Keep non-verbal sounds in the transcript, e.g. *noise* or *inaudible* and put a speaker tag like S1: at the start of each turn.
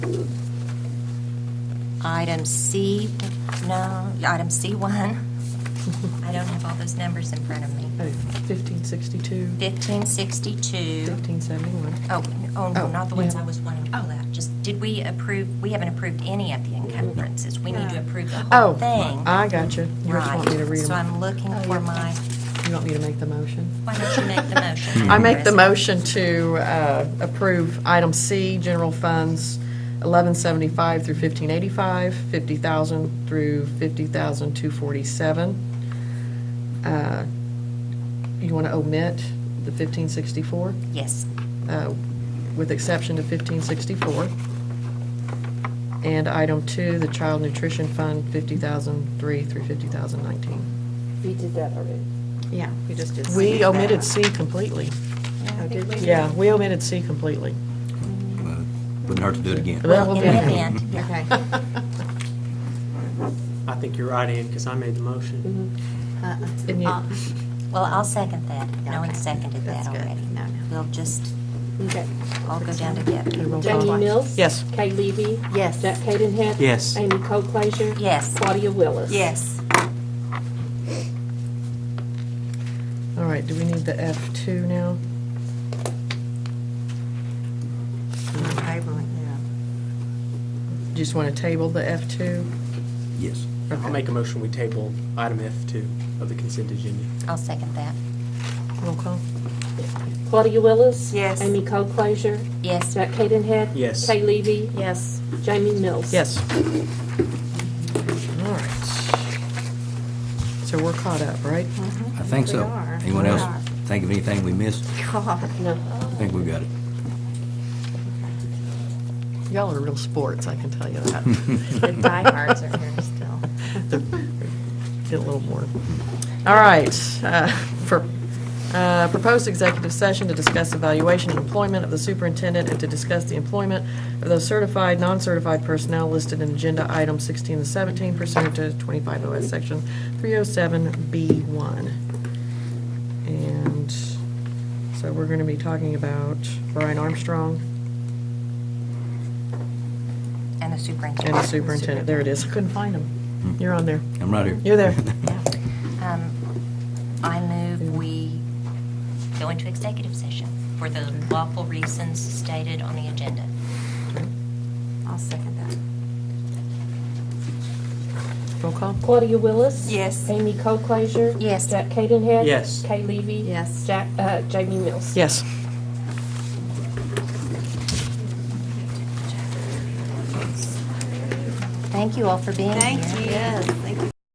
S1: Item C, no, item C1. I don't have all those numbers in front of me.
S2: Oh, 1562,
S1: 1562.
S2: 1571.
S1: Oh, oh, no,
S2: Oh,
S1: not the ones
S2: yeah.
S1: I was wanting to pull out. Just, did we approve, we haven't approved any of the encumbrances. We need to approve the whole
S2: Oh,
S1: thing.
S2: I got you. You just want me to
S1: Right.
S2: read
S1: So I'm
S2: them. Oh,
S1: looking for my,
S2: You want me to make the motion?
S1: why don't you make the motion?
S2: *laughs* I make the
S1: Chris?
S2: motion to uh, approve item C, general funds, 1175 through 1585, 50,000 through 50,247. Uh, You want to omit the 1564?
S1: Yes.
S2: uh, with exception of 1564. And item two, the Child Nutrition Fund, 50,003 through 50,019.
S3: We did that already.
S4: Yeah, we just did.
S2: We omitted C completely.
S4: Oh, did we?
S2: Yeah, we omitted C completely.
S5: Wouldn't hurt to do it again.
S2: That will
S1: In
S2: be-
S1: an event, yeah.
S2: *laughs*
S4: Okay. *laughs*
S6: I think you're right, Ann, because I made the
S3: Mm-hmm.
S6: motion.
S4: Uh-uh.
S2: And you-
S4: Uh,
S1: Well, I'll second that. No one
S4: Okay.
S1: seconded that
S4: That's good.
S1: already.
S4: No, no.
S1: We'll just
S3: Okay.
S1: all go down together.
S2: Roll call.
S3: Jamie Mm-hmm. Mills?
S2: Yes.
S3: Kay Levy?
S4: Yes.
S3: Jack Cadenhead?
S6: Yes.
S3: Amy Cole Frazier?
S1: Yes.
S3: Claudia Willis?
S2: All right, do we need the F2 now? Just want to table the F2?
S5: Yes.
S6: I'll make a motion, we table item F2 of the consent agenda.
S1: I'll second that.
S2: Roll call?
S3: Claudia Willis?
S4: Yes.
S3: Amy Cole Frazier?
S1: Yes.
S3: Jack Cadenhead?
S6: Yes.
S3: Kay Levy?
S4: Yes.
S3: Jamie Mills?
S2: Yes. All right. So we're caught up, right?
S5: I think so.
S4: We are.
S5: Anyone
S4: We
S5: else
S4: are.
S5: think of anything we missed?
S4: *laughs* God.
S3: No.
S5: I think we got it.
S2: Y'all are real sports, I can tell you
S5: *laughs*
S2: that.
S4: The diehards are here still.
S2: Get a little more. All right, uh, for, uh, proposed executive session to discuss evaluation and employment of the superintendent and to discuss the employment of those certified, non-certified personnel listed in agenda item 16 and 17 pursuant to 25 OS section 307B1. And so we're going to be talking about Brian Armstrong
S1: And the
S2: and
S1: superintendent.
S2: the superintendent. There it is. I Couldn't find him. You're on there.
S5: I'm right here.
S2: You're there.
S5: *laughs*
S1: Um, I move we go into executive session for the lawful reasons stated on the agenda.
S4: I'll second that.
S2: Roll call.
S3: Claudia Willis?
S1: Yes.
S3: Amy Cole Frazier?
S1: Yes.
S3: Jack Cadenhead?
S6: Yes.
S3: Kay Levy?
S4: Yes.
S3: Jack, uh, Jamie Mills?
S2: Yes.
S1: Thank you all for being here.
S4: Yes, thank you